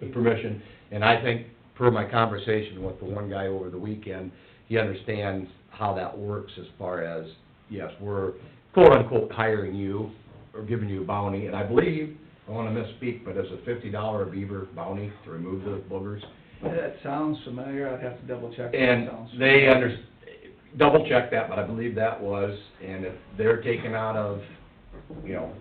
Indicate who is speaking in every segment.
Speaker 1: the permission, and I think, per my conversation with the one guy over the weekend, he understands how that works as far as, yes, we're quote-unquote hiring you, or giving you a bounty, and I believe, I don't wanna misspeak, but it's a fifty dollar beaver bounty to remove the boogers.
Speaker 2: That sounds familiar, I'd have to double check. but that
Speaker 1: And
Speaker 2: sounds
Speaker 1: they
Speaker 2: familiar.
Speaker 1: under, double check that, but I believe that was, and if they're taken out of, you know,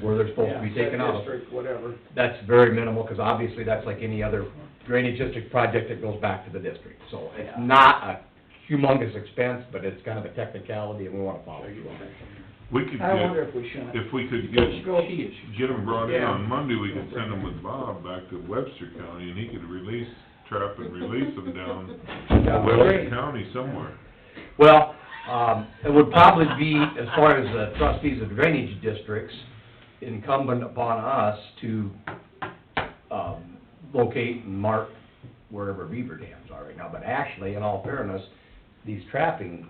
Speaker 1: where they're supposed to be
Speaker 2: Yeah, set
Speaker 1: taken out of,
Speaker 2: District, whatever.
Speaker 1: that's very minimal, because obviously that's like any other drainage district project that goes back to the district. So it's
Speaker 2: Yeah.
Speaker 1: not a humongous expense, but it's kind of a technicality and we wanna follow through on it.
Speaker 3: We could
Speaker 2: I wonder
Speaker 3: get,
Speaker 2: if we shouldn't.
Speaker 3: if we could
Speaker 2: Let's
Speaker 3: get,
Speaker 2: go each.
Speaker 3: get them brought in on
Speaker 2: Yeah.
Speaker 3: Monday, we could send them with Bob back to Webster County, and he could release, trap and release them down
Speaker 2: Yeah.
Speaker 3: Webster County somewhere.
Speaker 1: Well, um, it would probably be, as far as the trustees of drainage districts, incumbent upon us to, um, locate and mark wherever beaver dams are right now. But actually, in all fairness, these trapping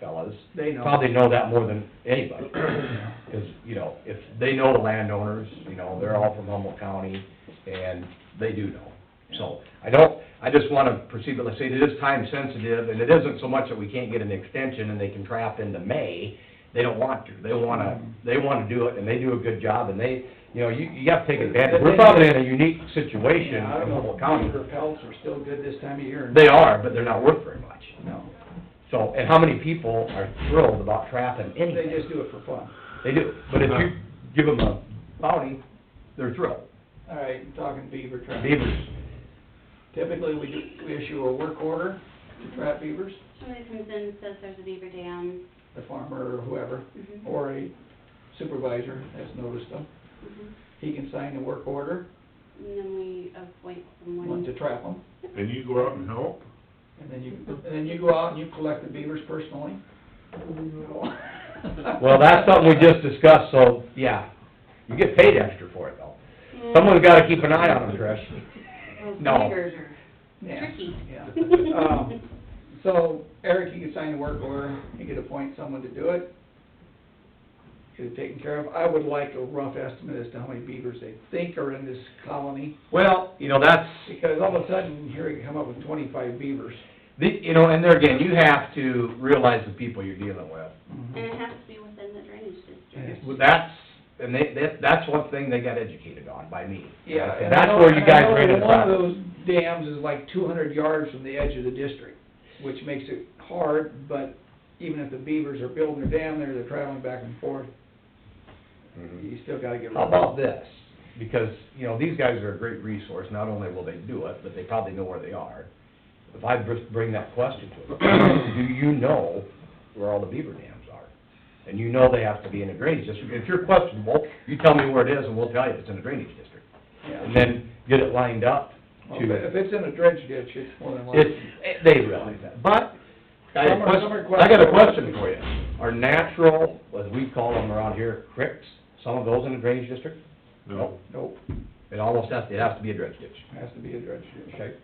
Speaker 1: fellas
Speaker 2: They know.
Speaker 1: probably know that more than anybody. Cause, you know, if, they know the landowners, you know, they're all from Humboldt County, and they do know. So, I don't, I just wanna proceed, but let's say it is time sensitive, and it isn't so much that we can't get an extension and they can trap into May. They don't want to, they wanna, they wanna do it, and they do a good job, and they, you know, you, you gotta take advantage. We're probably in a unique situation in
Speaker 2: Yeah, I don't know,
Speaker 1: Humboldt County.
Speaker 2: beaver pelts are still good this time of year.
Speaker 1: They are, but they're not worth very much.
Speaker 2: No,
Speaker 1: So, and how many people are thrilled about trapping anything?
Speaker 2: they just do it for fun.
Speaker 1: They do, but if you give them a bounty, they're thrilled.
Speaker 2: All right, talking beaver trap.
Speaker 1: Beavers,
Speaker 2: Typically, we do, we issue a work order to trap beavers,
Speaker 4: Somebody comes in and says there's a beaver dam.
Speaker 2: the farmer or whoever,
Speaker 4: Mhm,
Speaker 2: or a supervisor has noticed them.
Speaker 4: mhm.
Speaker 2: He can sign the work order,
Speaker 4: And then we appoint
Speaker 2: one
Speaker 4: someone.
Speaker 2: to trap them,
Speaker 3: And you go out and help?
Speaker 2: and then you, and then you go out and you collect the beavers personally.
Speaker 1: well, that's something we just discussed, so, yeah, you get paid extra for it though.
Speaker 4: Yeah.
Speaker 1: Someone's gotta keep an eye on them, Trish.
Speaker 4: Those
Speaker 1: no.
Speaker 4: beavers are
Speaker 2: Yeah,
Speaker 4: tricky.
Speaker 2: yeah. Um, So Eric, you could sign the work order, you could appoint someone to do it, get it taken care of. I would like a rough estimate as to how many beavers they think are in this colony,
Speaker 1: Well, you know, that's,
Speaker 2: because all of a sudden, here you come up with twenty-five beavers.
Speaker 1: the, you know, and there again, you have to realize the people you're dealing with.
Speaker 4: And it has to be within the drainage district.
Speaker 2: Yes.
Speaker 1: Well, That's, and they, that, that's one thing they got educated on by me. Uh,
Speaker 2: Yeah. and I
Speaker 1: That's
Speaker 2: know-
Speaker 1: where you
Speaker 2: and I
Speaker 1: guys
Speaker 2: know
Speaker 1: ran into
Speaker 2: One of
Speaker 1: problems.
Speaker 2: those dams is like two hundred yards from the edge of the district, which makes it hard, but even if the beavers are building their dam there, they're traveling back and forth,
Speaker 1: Mhm.
Speaker 2: you still gotta get.
Speaker 1: How about this? Because, you know, these guys are a great resource, not only will they do it, but they probably know where they are. If I br- bring that question to them, do you know where all the beaver dams are? And you know they have to be in a drainage district. If you're questionable, you tell me where it is and we'll tell you if it's in a drainage district.
Speaker 2: Yeah.
Speaker 1: And then get it lined up
Speaker 2: Well, If
Speaker 1: to,
Speaker 2: if it's in a dredge ditch, it's more than likely.
Speaker 1: it's, eh, they realize that. But, I got a
Speaker 2: Some are- some are
Speaker 1: question, I got a question for you. Are natural, as we call them around here, cricks, some of those in a drainage district?
Speaker 3: No.
Speaker 2: Nope,
Speaker 1: It almost has, it has to be a dredge ditch,
Speaker 2: has to be a dredge ditch.
Speaker 1: okay?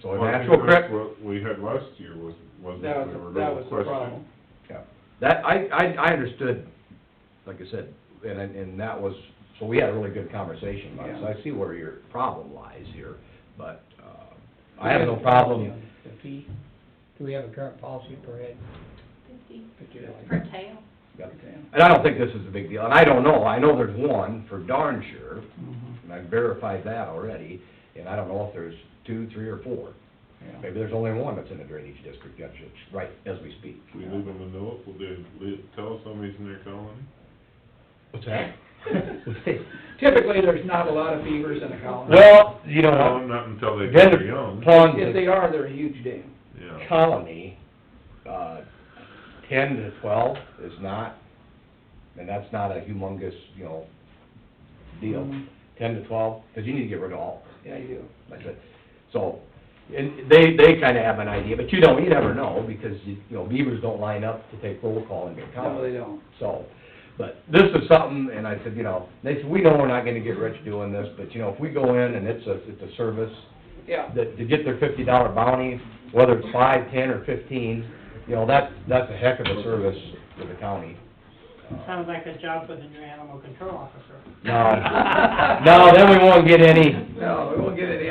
Speaker 1: So a
Speaker 3: Well, I
Speaker 1: natural
Speaker 3: think that's
Speaker 1: creek,
Speaker 3: What we had last year was, wasn't
Speaker 2: That was,
Speaker 3: we were
Speaker 2: the- that was the
Speaker 3: questioning.
Speaker 2: problem.
Speaker 1: that, I, I, I understood, like I said, and, I- and that was, so we had a really good conversation about it, so I see where your problem lies here, but, uh, I have no problem,
Speaker 5: The fee, do we have a current policy per head?
Speaker 4: Fifty
Speaker 5: Fifty dollars.
Speaker 4: per tail.
Speaker 1: and I don't think this is a big deal, and I don't know, I know there's one for darn sure,
Speaker 2: Mhm,
Speaker 1: and I verified that already, and I don't know if there's two, three, or four.
Speaker 2: yeah.
Speaker 1: Maybe there's only one that's in a drainage district, that's just right as we speak.
Speaker 3: If We leave them a note, will they, leave- tell somebody's in their colony?
Speaker 1: What's that?
Speaker 2: Eh? Typically, there's not a lot of beavers in a colony.
Speaker 1: Well, you know,
Speaker 3: No, not until they
Speaker 1: Then
Speaker 3: get
Speaker 1: the
Speaker 3: young,
Speaker 1: ponds
Speaker 2: If they are, they're a huge dam.
Speaker 3: yeah.
Speaker 1: colony, uh, ten to twelve is not, and that's not a humongous, you know, deal.
Speaker 2: Mhm.
Speaker 1: Ten to twelve, because you need to get rid of all,
Speaker 2: Yeah, you do.
Speaker 1: like I said. So, and they, they kinda have an idea, but you don't, you never know, because, you you know, beavers don't line up to take roll call in your
Speaker 2: No,
Speaker 1: colony.
Speaker 2: they don't.
Speaker 1: So, but this is something, and I said, you know, they said, we know we're not gonna get rich doing this, but, you know, if we go in and it's a, it's a service,
Speaker 2: Yeah,
Speaker 1: that, to get their fifty dollar bounty, whether it's five, ten, or fifteen, you know, that's, that's a heck of a service to the county.
Speaker 6: Sounds like a job within your animal control officer.
Speaker 1: No, no, then we won't get any,
Speaker 2: no, we won't get any